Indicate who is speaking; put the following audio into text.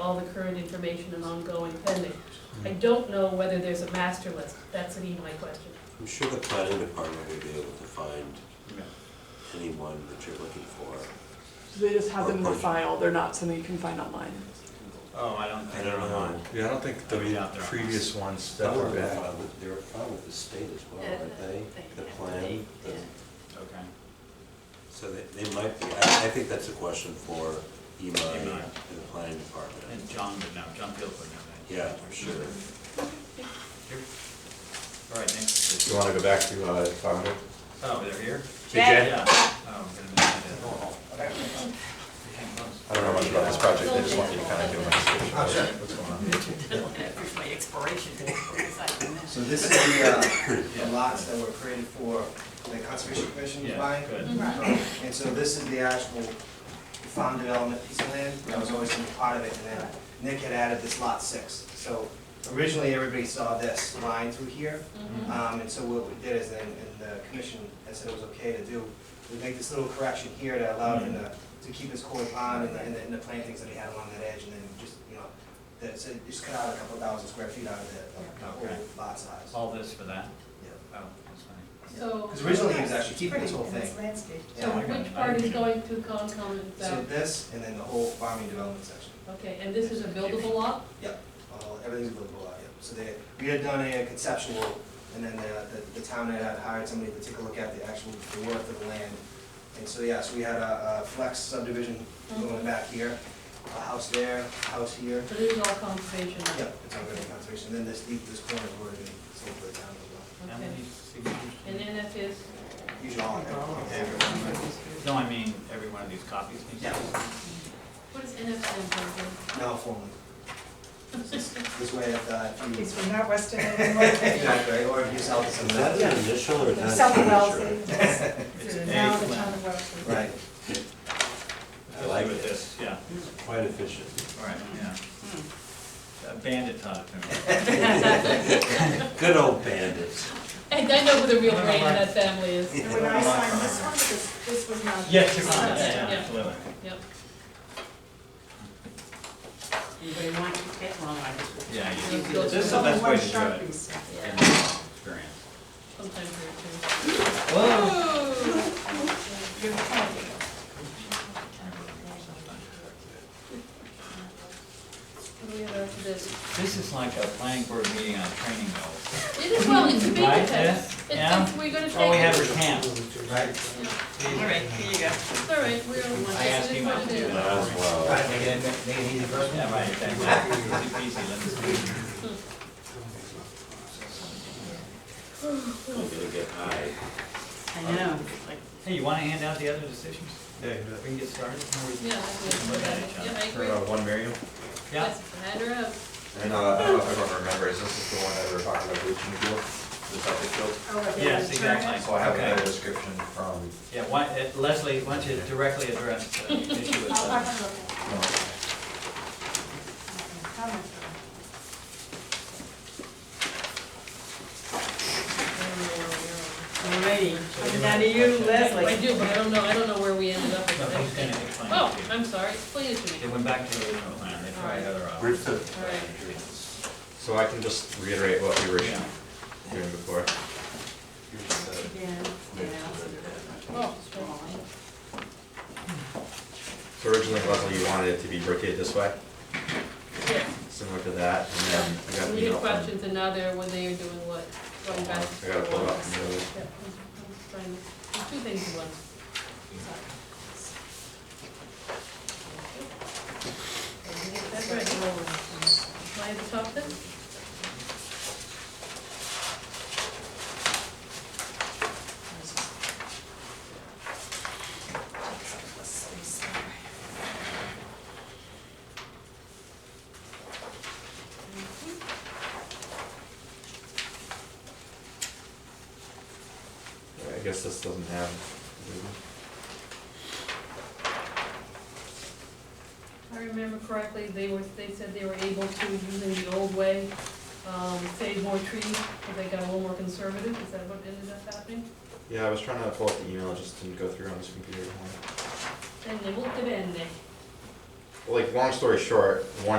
Speaker 1: all the current information and ongoing pending. I don't know whether there's a master list, that's an EY question.
Speaker 2: I'm sure the planning department would be able to find
Speaker 3: Yeah.
Speaker 2: anyone that you're looking for.
Speaker 4: So they just have them in the file, they're not something you can find online.
Speaker 3: Oh, I don't
Speaker 2: I
Speaker 3: think.
Speaker 2: don't know.
Speaker 5: Yeah, I don't think
Speaker 3: I mean,
Speaker 5: the
Speaker 3: out there.
Speaker 5: previous ones that were back.
Speaker 2: They're filed with the state as well,
Speaker 6: Yeah,
Speaker 2: aren't they? The
Speaker 6: yeah,
Speaker 2: plan, the-
Speaker 6: yeah.
Speaker 3: Okay.
Speaker 2: so they, they might be, I, I think that's a question for EMI and
Speaker 3: EMI.
Speaker 2: the planning department.
Speaker 3: And John would know, John Field would know that.
Speaker 2: Yeah, for sure.
Speaker 3: Here. All right, next.
Speaker 7: You wanna go back to, uh, five hundred?
Speaker 3: Oh, they're here?
Speaker 7: TJ?
Speaker 3: Yeah. Oh, we're gonna miss that. Hang close.
Speaker 7: I don't know much about this project, I just want you to kinda give a description of what's going on.
Speaker 6: Looking at for my expiration date, it's like a minute.
Speaker 8: So this is the, uh, the lots that were created for the conservation commission was
Speaker 3: Yeah,
Speaker 8: buying.
Speaker 3: good.
Speaker 8: And so this is the actual farm development piece of land, that was always gonna be part of it, and then Nick had added this lot six. So originally, everybody saw this line through here, um, and so what we did is, and, and the commission had said it was okay to do, we make this little correction here to allow him to, to keep his koi pond and the, and the- and the plantings that he had along that edge, and then just, you know, that, so just cut out a couple thousand square feet out of the, the whole
Speaker 3: Okay.
Speaker 8: lot size.
Speaker 3: All this for that?
Speaker 8: Yeah.
Speaker 3: Oh, that's funny.
Speaker 1: So,
Speaker 8: Because originally he was actually keeping this whole thing.
Speaker 1: so
Speaker 8: Yeah.
Speaker 1: which part is going to Concom and
Speaker 8: So
Speaker 1: that?
Speaker 8: this, and then the whole farming development section.
Speaker 1: Okay, and this is a buildable lot?
Speaker 8: Yep. All, everything's buildable out, yep. So they, we had done a conceptual, and then the, the- the town had hired somebody to take a look at the actual, the worth of the land. And so, yeah, so we had a, a flex subdivision going back here, a house there, a house here.
Speaker 1: So this is all conservation? land?
Speaker 8: Yep, it's all going to conservation, then this, deep- this corner is where it's sold to the town as
Speaker 3: How
Speaker 1: Okay.
Speaker 3: many signatures? do
Speaker 1: And
Speaker 3: you-
Speaker 1: then that is,
Speaker 8: well. Usually all in
Speaker 3: No, I mean, every one of these copies needs to.
Speaker 8: Yeah.
Speaker 1: what is NF stand for?
Speaker 8: Now formally. This way, if, uh, if you.
Speaker 9: He's from not Weston anymore.
Speaker 8: Exactly, or if you sell to
Speaker 2: Is
Speaker 8: somebody.
Speaker 2: that an initial or is that a
Speaker 9: South of
Speaker 2: signature?
Speaker 9: Wellesley.
Speaker 3: It's
Speaker 9: So
Speaker 3: a
Speaker 9: Now the town
Speaker 3: plan.
Speaker 9: of Wellesley.
Speaker 8: Right.
Speaker 2: I like
Speaker 3: With
Speaker 2: it.
Speaker 3: this, yeah,
Speaker 2: Quite efficient.
Speaker 3: all right, yeah. Uh, Bandit talk.
Speaker 2: Good old bandits.
Speaker 1: And I know who the real brain in that family is.
Speaker 9: And when I signed this one, this, this was not.
Speaker 3: Yes, you're right,
Speaker 9: signed.
Speaker 3: yeah,
Speaker 1: Yeah.
Speaker 3: absolutely.
Speaker 1: Yep.
Speaker 6: Anybody want to take long on this?
Speaker 3: Yeah, you-
Speaker 1: It's built
Speaker 3: this is the
Speaker 1: from
Speaker 3: best way to do
Speaker 9: Only one
Speaker 3: it.
Speaker 9: Sharpie.
Speaker 1: Yeah.
Speaker 3: in my Experience.
Speaker 1: Sometimes they're too.
Speaker 3: Whoa.
Speaker 9: You're funny.
Speaker 1: What do we have after this?
Speaker 3: This is like a planning board meeting on training goals.
Speaker 1: It is, well, it's a big
Speaker 3: Right,
Speaker 1: test. It's,
Speaker 3: yeah,
Speaker 1: it's, we're gonna take.
Speaker 3: All Oh, we have
Speaker 1: it.
Speaker 3: is camp.
Speaker 8: Right.
Speaker 6: All right, here you go.
Speaker 1: It's all right, we're on one.
Speaker 3: I asked him not to do that.
Speaker 2: As well.
Speaker 8: Right, make it, make it easy for us.
Speaker 3: Yeah, right, exactly. Easy peasy, let us do it.
Speaker 2: I'm gonna get high.
Speaker 6: I know,
Speaker 3: Um,
Speaker 6: like,
Speaker 3: Hey, you wanna hand out the other decisions? Yeah. We can get started?
Speaker 1: Yeah, that's good. yeah, I agree.
Speaker 7: Uh, one Miriam?
Speaker 3: Yeah.
Speaker 1: Yes, hand her up.
Speaker 7: And, uh, I don't know if everyone remembers, this is the one that we were talking about, Blue Chin Field, the septic field.
Speaker 9: Oh, okay.
Speaker 3: Yes,
Speaker 9: Turn it.
Speaker 3: exactly.
Speaker 7: So I have
Speaker 3: Okay.
Speaker 7: another description from,
Speaker 3: Yeah, why, uh, Leslie, why don't you directly address uh, the issue with
Speaker 9: I'll
Speaker 3: the
Speaker 9: have a look at
Speaker 7: no,
Speaker 9: it. How much?
Speaker 6: all righty, coming down to you, Leslie.
Speaker 1: I do, but I don't know, I don't know where we ended up with
Speaker 3: No,
Speaker 1: that.
Speaker 3: he's gonna explain
Speaker 1: Oh,
Speaker 3: it to you.
Speaker 1: I'm sorry, explain it to
Speaker 3: They
Speaker 1: me.
Speaker 3: went back to the original plan, they tried other
Speaker 2: We're
Speaker 3: options.
Speaker 2: so-
Speaker 1: All right.
Speaker 7: so I can just reiterate what we were
Speaker 3: Yeah.
Speaker 7: doing before.
Speaker 6: Yeah,
Speaker 1: Oh,
Speaker 6: yeah.
Speaker 7: So originally, Leslie, you wanted it to be rotated this way,
Speaker 1: yes.
Speaker 7: similar to that, and then I got an
Speaker 1: We had
Speaker 7: email from.
Speaker 1: questions and now they're, when they are doing what, going back.
Speaker 7: I gotta pull it up from the other.
Speaker 1: Yeah, I'm- I'm trying- there's Two things in one. That's right. Am I at the top then?
Speaker 7: I guess this doesn't have.
Speaker 1: I remember correctly, they were, they said they were able to, using the old way, um, save more trees, but they got a little more conservative, is that what ended up happening?
Speaker 7: Yeah, I was trying to pull up the email, it just didn't go through on this computer.
Speaker 1: And they looked at it and they
Speaker 7: Like, long story short, one